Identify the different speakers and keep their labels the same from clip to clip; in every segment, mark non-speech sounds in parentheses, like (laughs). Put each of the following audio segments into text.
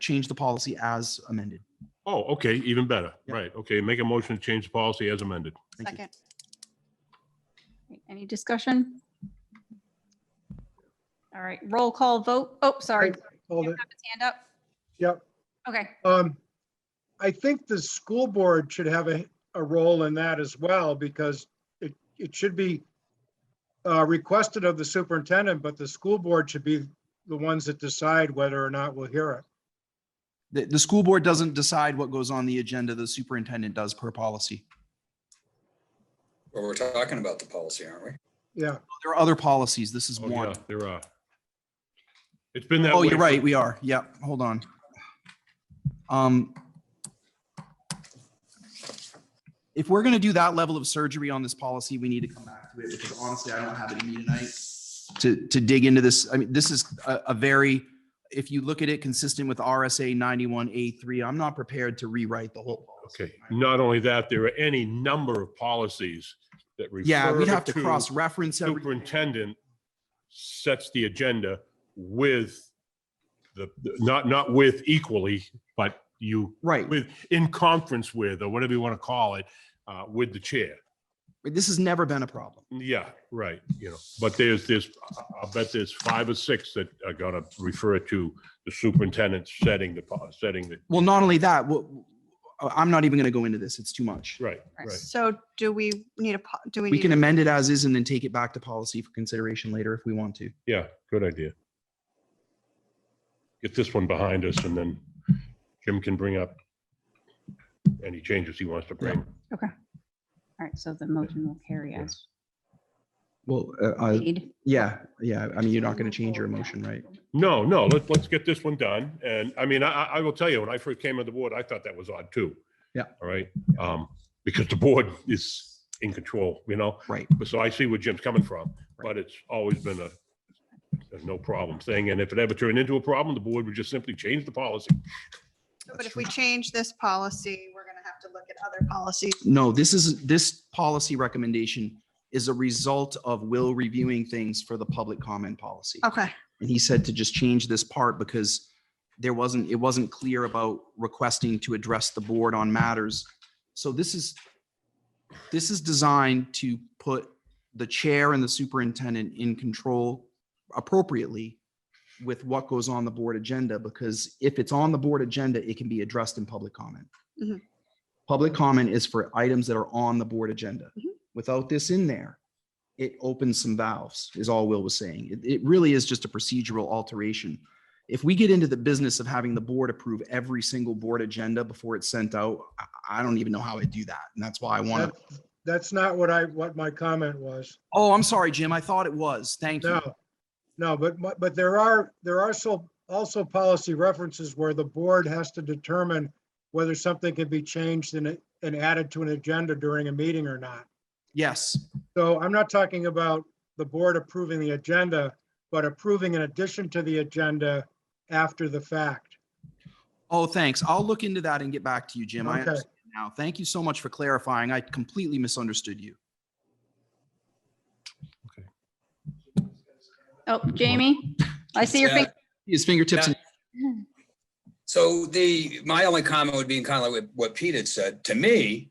Speaker 1: change the policy as amended.
Speaker 2: Oh, okay, even better.
Speaker 1: Yeah.
Speaker 2: Right, okay, make a motion to change the policy as amended.
Speaker 1: Thank you.
Speaker 3: Second.
Speaker 4: Any discussion? All right, roll call vote. Oh, sorry.
Speaker 5: Right, Hold
Speaker 4: You
Speaker 5: it.
Speaker 4: have his Hand up.
Speaker 5: Yep.
Speaker 4: Okay,
Speaker 5: Um, I think the school board should have a, a role in that as well because it, it should be uh, requested of the superintendent, but the school board should be the ones that decide whether or not we'll hear it.
Speaker 1: The, the school board doesn't decide what goes on the agenda. The superintendent does per policy.
Speaker 6: Well, we're talking about the policy, aren't we?
Speaker 5: Yeah,
Speaker 1: There are other policies. This is
Speaker 2: Oh, yeah,
Speaker 1: one.
Speaker 2: there are. It's been that.
Speaker 1: Oh,
Speaker 2: way
Speaker 1: you're
Speaker 2: for-
Speaker 1: right. We are. Yeah, hold on. Um, if we're gonna do that level of surgery on this policy, we need to come back to it because honestly, I don't have it in me tonight to, to dig into this. I mean, this is a, a very, if you look at it consistent with RSA ninety-one A three, I'm not prepared to rewrite the whole. policy.
Speaker 2: Okay, not only that, there are any number of policies that refer.
Speaker 1: Yeah, we'd have to
Speaker 2: to
Speaker 1: cross-reference every,
Speaker 2: Superintendent sets the agenda with the, not, not with equally, but you,
Speaker 1: right.
Speaker 2: with, in conference with, or whatever you want to call it, uh, with the chair.
Speaker 1: This has never been a problem.
Speaker 2: Yeah, right, you know, but there's this, I'll bet there's five or six that are gonna refer to the superintendent setting the, po- setting the,
Speaker 1: Well, not only that, what, I'm not even gonna go into this. It's too much.
Speaker 2: right, right.
Speaker 3: So do we need a, po- do we
Speaker 1: We
Speaker 3: need,
Speaker 1: can
Speaker 3: a-
Speaker 1: amend it as is and then take it back to policy for consideration later if we want to.
Speaker 2: Yeah, good idea. Get this one behind us and then Jim can bring up any changes he wants to bring.
Speaker 4: all right, so the motion will carry as
Speaker 1: Well, uh, uh,
Speaker 4: made.
Speaker 1: yeah, yeah. I mean, you're not going to change your emotion, right?
Speaker 2: No, no, let's, let's get this one done. And I mean, I, I I will tell you, when I first came on the board, I thought that was odd too.
Speaker 1: Yeah.
Speaker 2: All right, um, because the board is in control, you know?
Speaker 1: Right.
Speaker 2: But So I see where Jim's coming from, but it's always been a, a no problem thing. And if it ever turned into a problem, the board would just simply change the policy.
Speaker 3: but if we change this policy, we're going to have to look at other policies.
Speaker 1: No, this is, this policy recommendation is a result of Will reviewing things for the public comment policy.
Speaker 3: Okay,
Speaker 1: And he said to just change this part because there wasn't, it wasn't clear about requesting to address the board on matters. So this is, this is designed to put the chair and the superintendent in control appropriately with what goes on the board agenda, because if it's on the board agenda, it can be addressed in public comment.
Speaker 3: Mhm.
Speaker 1: Public comment is for items that are on the board agenda.
Speaker 3: Mhm.
Speaker 1: Without this in there, it opens some valves, is all Will was saying. It, it really is just a procedural alteration. If we get into the business of having the board approve every single board agenda before it's sent out, I, I don't even know how I do that. And that's why I want to.
Speaker 5: that- that's not what I, what my comment was.
Speaker 1: Oh, I'm sorry, Jim. I thought it was. Thank you.
Speaker 5: No, no, but, my- but there are, there are so, also policy references where the board has to determine whether something can be changed and, and added to an agenda during a meeting or not.
Speaker 1: Yes.
Speaker 5: So I'm not talking about the board approving the agenda, but approving in addition to the agenda after the fact.
Speaker 1: Oh, thanks. I'll look into that and get back to you, Jim. I
Speaker 5: Okay.
Speaker 1: understand now. Thank you so much for clarifying. I completely misunderstood you.
Speaker 4: Oh, Jamie, I see your
Speaker 6: Yeah.
Speaker 4: finger. (laughs)
Speaker 1: His fingertips.
Speaker 6: Yeah.
Speaker 1: and-
Speaker 6: So the, my only comment would be in kind of like what- what Pete had said. To me,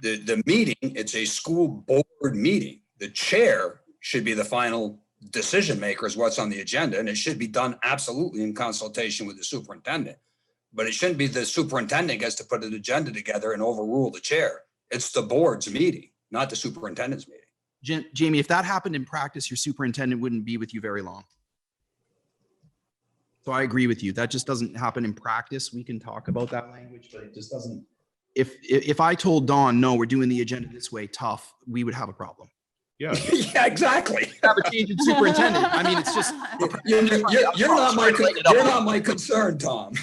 Speaker 6: the, the meeting, it's a school board meeting. The chair should be the final decision maker is what's on the agenda, and it should be done absolutely in consultation with the superintendent. But it shouldn't be the superintendent gets to put an agenda together and overrule the chair. It's the board's meeting, not the superintendent's meeting.
Speaker 1: Jim- Jamie, if that happened in practice, your superintendent wouldn't be with you very long. So I agree with you. That just doesn't happen in practice. We can talk about that language, but it just doesn't. If, if, if I told Dawn, no, we're doing the agenda this way, tough, we would have a problem.
Speaker 2: Yeah.
Speaker 6: (laughs) Yeah, exactly.
Speaker 1: Have a change in superintendent. I mean, it's just,
Speaker 6: You're, you're- you're not my, con- you're not my concern, Tom.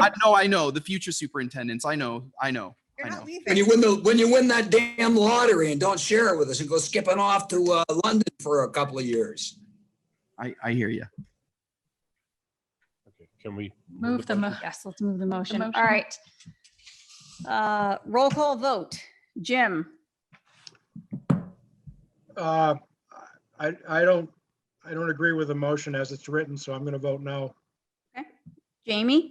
Speaker 1: I know, I know, the future superintendents. I know, I know.
Speaker 3: you're
Speaker 1: I
Speaker 3: not
Speaker 1: know.
Speaker 3: leaving.
Speaker 6: When you win the, when you win that damn lottery and don't share it with us and go skipping off to uh, London for a couple of years.
Speaker 1: I, I hear you.
Speaker 2: Okay, Can we?
Speaker 7: Move the, mo-
Speaker 4: Yes, let's move the motion. All
Speaker 7: motion.
Speaker 4: right. Uh, roll call vote. Jim,
Speaker 5: Uh, I, I don't, I don't agree with the motion as it's written, so I'm going to vote no.
Speaker 4: Jamie?